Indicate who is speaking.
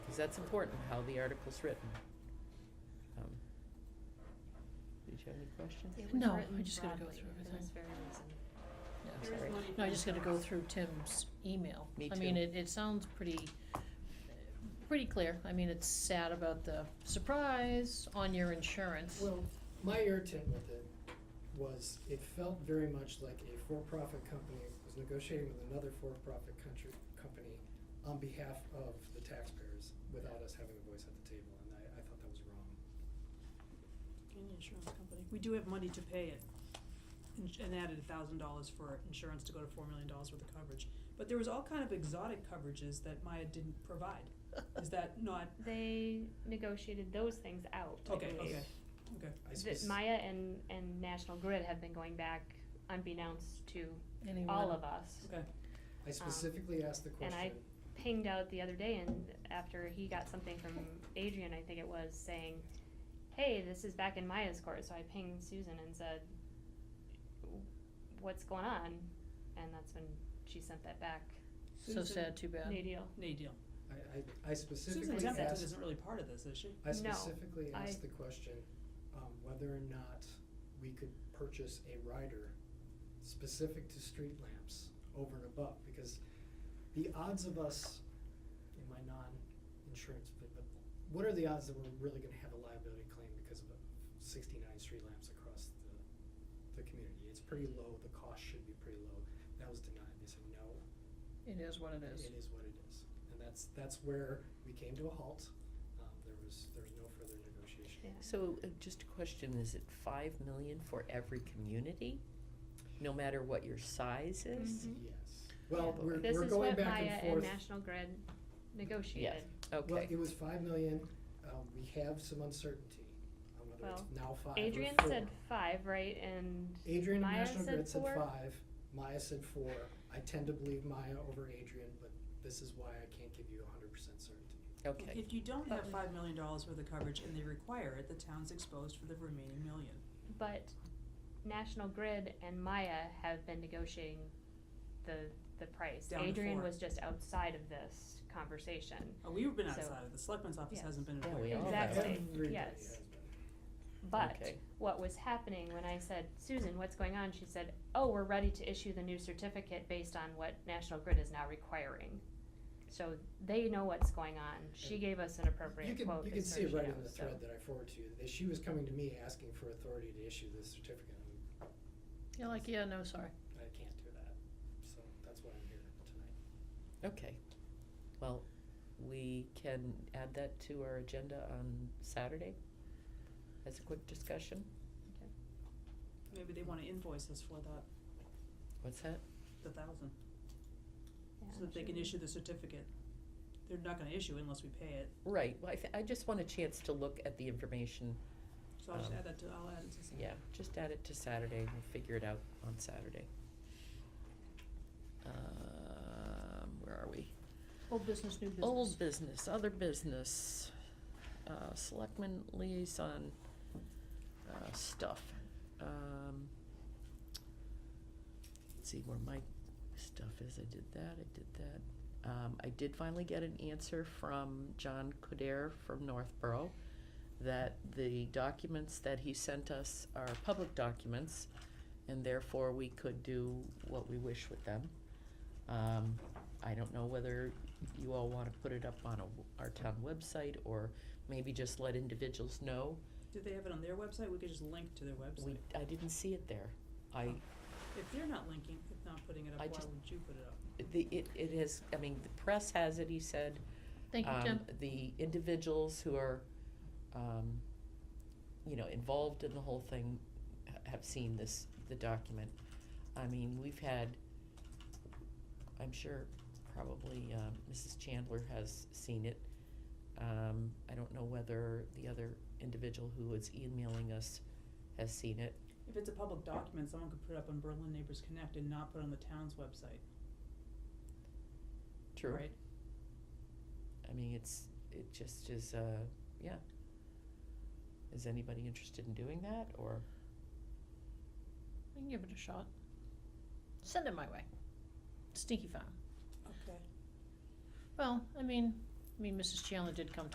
Speaker 1: Because that's important, how the article's written. Um, Did you have any questions?
Speaker 2: It was
Speaker 3: No,
Speaker 2: written
Speaker 3: I just gotta go
Speaker 2: broadly
Speaker 3: through
Speaker 2: for this very reason.
Speaker 3: Yeah,
Speaker 1: I'm
Speaker 2: There is
Speaker 1: sorry.
Speaker 2: money
Speaker 3: No, I
Speaker 2: for
Speaker 3: just
Speaker 2: the
Speaker 3: gotta go
Speaker 2: cost.
Speaker 3: through Tim's email.
Speaker 1: Me
Speaker 3: I mean,
Speaker 1: too.
Speaker 3: it, it sounds pretty, pretty clear. I mean, it's sad about the surprise on your insurance.
Speaker 4: Well, my irritant with it was it felt very much like a for-profit company was negotiating with another for-profit country, company on behalf of the taxpayers without us having a voice at the table, and I, I thought that was wrong.
Speaker 5: Any insurance company. We do have money to pay it, and sh- and added a thousand dollars for insurance to go to four million dollars worth of coverage. But there was all kind of exotic coverages that Maya didn't provide. Is that not,
Speaker 2: They negotiated those things out, I
Speaker 5: okay,
Speaker 2: believe.
Speaker 5: okay,
Speaker 4: I
Speaker 2: That
Speaker 4: spec-
Speaker 2: Maya and, and National Grid have been going back unbeknownst to
Speaker 3: Anyone?
Speaker 2: all of us.
Speaker 5: okay.
Speaker 4: I specifically asked the
Speaker 2: and I-
Speaker 4: question,
Speaker 2: Pinged out the other day and after he got something from Adrian, I think it was, saying, hey, this is back in Maya's court, so I pinged Susan and said, what's going on? And that's when she sent that back,
Speaker 3: So sad, too bad.
Speaker 2: no deal.
Speaker 5: Nay deal.
Speaker 4: I, I, I
Speaker 5: Susan
Speaker 4: specifically
Speaker 5: Templeton
Speaker 4: asked,
Speaker 5: isn't really part of this, is she?
Speaker 4: I
Speaker 2: No,
Speaker 4: specifically
Speaker 2: I-
Speaker 4: asked the question, um, whether or not we could purchase a rider specific to street lamps over and above, because the odds of us, in my non-insurance, but, but what are the odds that we're really gonna have a liability claim because of sixty-nine street lamps across the, the community? It's pretty low, the cost should be pretty low. That was denied, they said, no,
Speaker 3: It is what it is.
Speaker 4: it is what it is. And that's, that's where we came to a halt. Um, there was, there was no further negotiation.
Speaker 2: Yeah.
Speaker 1: So, uh, just a question, is it five million for every community? No matter what your size is?
Speaker 2: Mhm.
Speaker 4: Yes. Well, we're,
Speaker 2: This
Speaker 4: we're
Speaker 2: is
Speaker 4: going
Speaker 2: what
Speaker 4: back
Speaker 2: Maya
Speaker 4: and
Speaker 2: and
Speaker 4: forth.
Speaker 2: National Grid negotiated.
Speaker 4: Well,
Speaker 1: Okay,
Speaker 4: it was five million. Um, we have some uncertainty on whether it's
Speaker 2: Well,
Speaker 4: now five or four.
Speaker 2: Adrian said five, right, and
Speaker 4: Adrian and
Speaker 2: Maya
Speaker 4: National
Speaker 2: said
Speaker 4: Grid said
Speaker 2: four?
Speaker 4: five. Maya said four. I tend to believe Maya over Adrian, but this is why I can't give you hundred percent certainty.
Speaker 1: okay,
Speaker 5: If you don't
Speaker 2: But-
Speaker 5: have five million dollars worth of coverage and they require it, the town's exposed for the remaining million.
Speaker 2: but National Grid and Maya have been negotiating the, the price.
Speaker 5: Down to
Speaker 2: Adrian
Speaker 5: four.
Speaker 2: was just outside of this conversation.
Speaker 5: Uh, we've been
Speaker 2: So-
Speaker 5: outside of, the selectman's office
Speaker 2: Yes.
Speaker 5: hasn't been
Speaker 1: Yeah,
Speaker 5: aware.
Speaker 1: we all have.
Speaker 2: Exactly,
Speaker 4: Everybody
Speaker 2: yes.
Speaker 4: has been.
Speaker 2: But
Speaker 1: Okay.
Speaker 2: what was happening when I said, Susan, what's going on? She said, oh, we're ready to issue the new certificate based on what National Grid is now requiring. So they know what's going on. She gave us an
Speaker 4: You
Speaker 2: appropriate
Speaker 4: can,
Speaker 2: quote.
Speaker 4: you
Speaker 2: as
Speaker 4: can
Speaker 2: soon
Speaker 4: see
Speaker 2: as
Speaker 4: it
Speaker 2: she
Speaker 4: right in
Speaker 2: knows,
Speaker 4: the
Speaker 2: so.
Speaker 4: thread that I forwarded to you, that she was coming to me asking for authority to issue this certificate, and
Speaker 3: You're like, yeah, no, sorry.
Speaker 4: I can't do that, so that's why I'm here tonight.
Speaker 1: okay. Well, we can add that to our agenda on Saturday as a quick discussion.
Speaker 5: Maybe they wanna invoice us for that,
Speaker 1: What's that?
Speaker 5: the thousand,
Speaker 2: Yeah,
Speaker 5: so that they
Speaker 2: she-
Speaker 5: can issue the certificate. They're not gonna issue unless we pay it,
Speaker 1: Right, well, I, thi- I just want a chance to look at the information,
Speaker 5: so I'll just
Speaker 1: Um,
Speaker 5: add that to, I'll add it to.
Speaker 1: yeah, just add it to Saturday, we'll figure it out on Saturday. Um, where are we?
Speaker 3: Old business, new business.
Speaker 1: Old business, other business, uh, selectmen liaison, uh, stuff, um. Let's see where my stuff is, I did that, I did that. Um, I did finally get an answer from John Coder from Northborough that the documents that he sent us are public documents and therefore we could do what we wish with them. Um, I don't know whether you all wanna put it up on a, our town website or maybe just let individuals know.
Speaker 5: Do they have it on their website? We could just link to their
Speaker 1: We,
Speaker 5: website.
Speaker 1: I didn't see it there. I,
Speaker 5: If they're not linking, if not putting it up,
Speaker 1: I
Speaker 5: why
Speaker 1: just-
Speaker 5: would you put it up?
Speaker 1: the, it, it is, I mean, the press has it, he said.
Speaker 3: Thank you,
Speaker 1: um,
Speaker 3: Tim.
Speaker 1: The individuals who are, um, you know, involved in the whole thing ha- have seen this, the document. I mean, we've had, I'm sure probably, um, Mrs. Chandler has seen it. Um, I don't know whether the other individual who was emailing us has seen it.
Speaker 5: If it's a public document, someone could put it up on Berlin Neighbors Connect and not put it on the town's website,
Speaker 1: True.
Speaker 5: right?
Speaker 1: I mean, it's, it just is, uh, yeah. Is anybody interested in doing that, or?
Speaker 3: I can give it a shot. Send it my way. Stinky farm.
Speaker 5: Okay.
Speaker 3: Well, I mean, mean, Mrs. Chandler did come